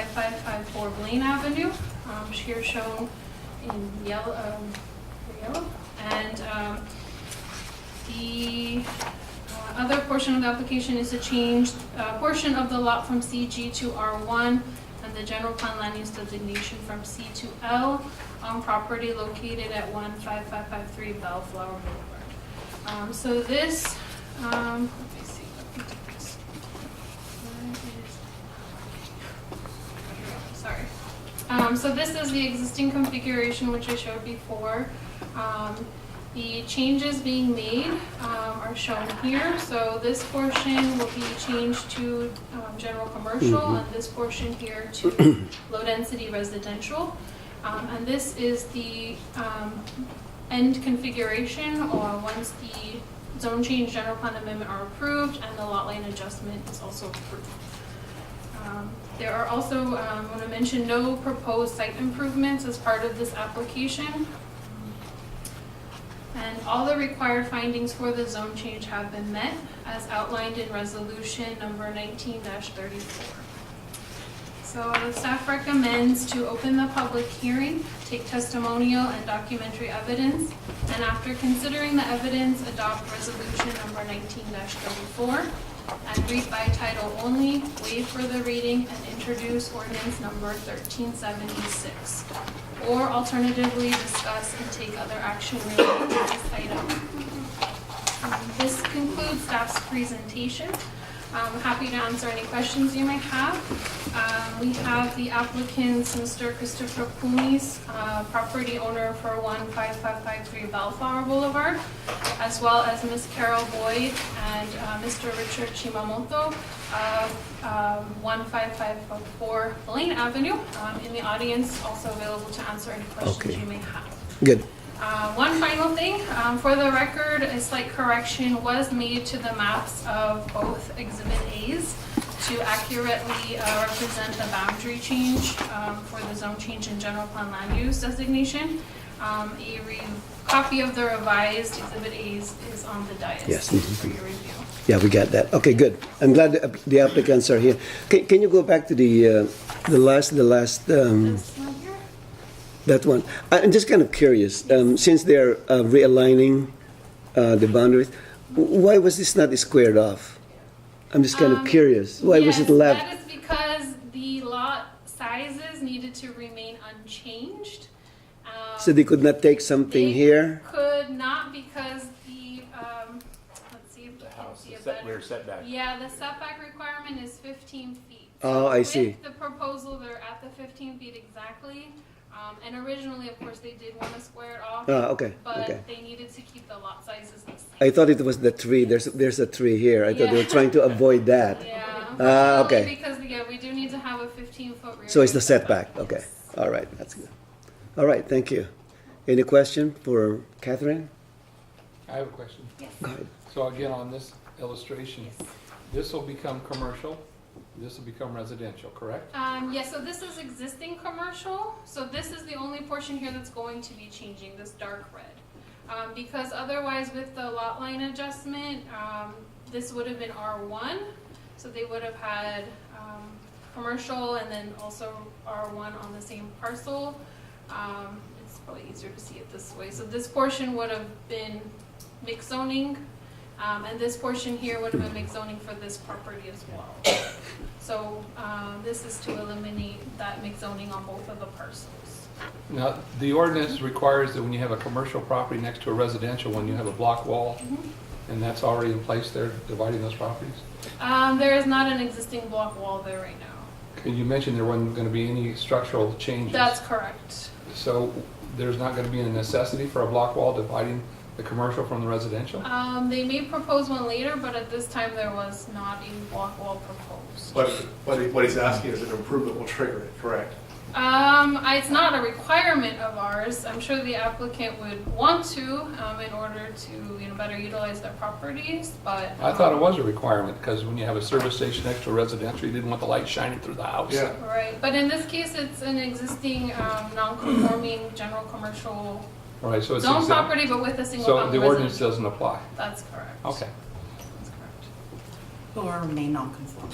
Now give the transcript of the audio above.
15554 Blaine Avenue, um, here shown in yellow, um, yellow. And um, the uh, other portion of the application is to change uh, portion of the lot from CG to R1 and the general plan land use designation from C to L on property located at 15553 Bellflower Boulevard. Um, So this, um, let me see, let me do this. Where is- Sorry. Um, So this is the existing configuration which I showed before. Um, The changes being made um, are shown here. So this portion will be changed to um, general commercial and this portion here to low-density residential. Um, And this is the um, end configuration or once the zone change general plan amendment are approved and the lot line adjustment is also approved. Um, There are also, um, I want to mention, no proposed site improvements as part of this application. And all the required findings for the zone change have been met as outlined in resolution number nineteen thirty-four. So the staff recommends to open the public hearing, take testimonial and documentary evidence, and after considering the evidence, adopt resolution number nineteen thirty-four, and read by title only, waive further reading, and introduce ordinance number thirteen seventy-six. Or alternatively, discuss and take other action related to this item. Um, This concludes staff's presentation. I'm happy to answer any questions you might have. Um, We have the applicants, Mr. Christopher Pumis, uh, property owner for 15553 Bellflower Boulevard, as well as Ms. Carol Boyd and uh, Mr. Richard Chimamoto of um, 15554 Blaine Avenue. Um, In the audience, also available to answer any questions Okay. you may have. Good. Uh, One final thing, um, for the record, a slight correction was made to the maps of both Exhibit As to accurately uh, represent the boundary change um, for the zone change in general plan land use designation. Um, A re- copy of the revised Exhibit As is on the dais. Yes. For your review. Yeah, we got that. Okay, good. I'm glad the app- the applicants are here. Can, can you go back to the, uh, the last, the last, um, This one here? that one? I- I'm just kind of curious, um, since they're uh, realigning uh, the boundaries, w- why was this not squared off? I'm just kind of Um, curious. Why was Yes, it left? That is because the lot sizes needed to remain unchanged. Um, So they could not take something They- here? Could not because the, um, let's see if we The can house, see the a set, rear better. setback. Yeah, the setback requirement is fifteen feet. Oh, I see. With the proposal, they're at the fifteen feet exactly. Um, and originally, of course, they did wanna square it off, Ah, okay, okay. but they needed to keep the lot sizes the same. I thought it was the tree. There's, there's a tree here. I thought they were Yeah. trying to avoid that. Yeah. Ah, okay. Only Because, yeah, we do need to have a fifteen foot rear. So it's yard the setback, okay. All right, that's good. All right, thank you. Any question for Catherine? I have a question. Go ahead. So again, on this illustration, Yes. this will become commercial, this will become residential, correct? Um, yeah, so this is existing commercial, so this is the only portion here that's going to be changing, this dark red. Um, because otherwise with the lot line adjustment, um, this would have been R one, so they would have had, um, commercial and then also R one on the same parcel. Um, it's probably easier to see it this way, so this portion would have been mixed zoning, um, and this portion here would have been mixed zoning for this property as well. So um, this is to eliminate that mixed zoning on both of the parcels. Now, the ordinance requires that when you have a commercial property next to a residential one, you have a block wall, Mm-hmm. and that's already in place there, dividing those properties. Um, There is not an existing block wall there right now. And you mentioned there wasn't gonna be any structural changes. That's correct. So there's not gonna be a necessity for a block wall dividing the commercial from the residential? Um, They may propose one later, but at this time, there was not a block wall proposed. But, but he- what he's asking is an improvement will trigger it, correct? Um, I- It's not a requirement of ours. I'm sure the applicant would want to um, in order to you know, better utilize their properties, but. I thought it um, was a requirement, because when you have a service station next to a residential, you didn't want the light shining through the house. Yeah. Right, but in this case, it's an existing um, non-conforming general commercial Right, so it's. Zone exempt. property, but with a single So family the ordinance residence. doesn't apply? That's correct. Okay. That's correct. Or remain non-conforming.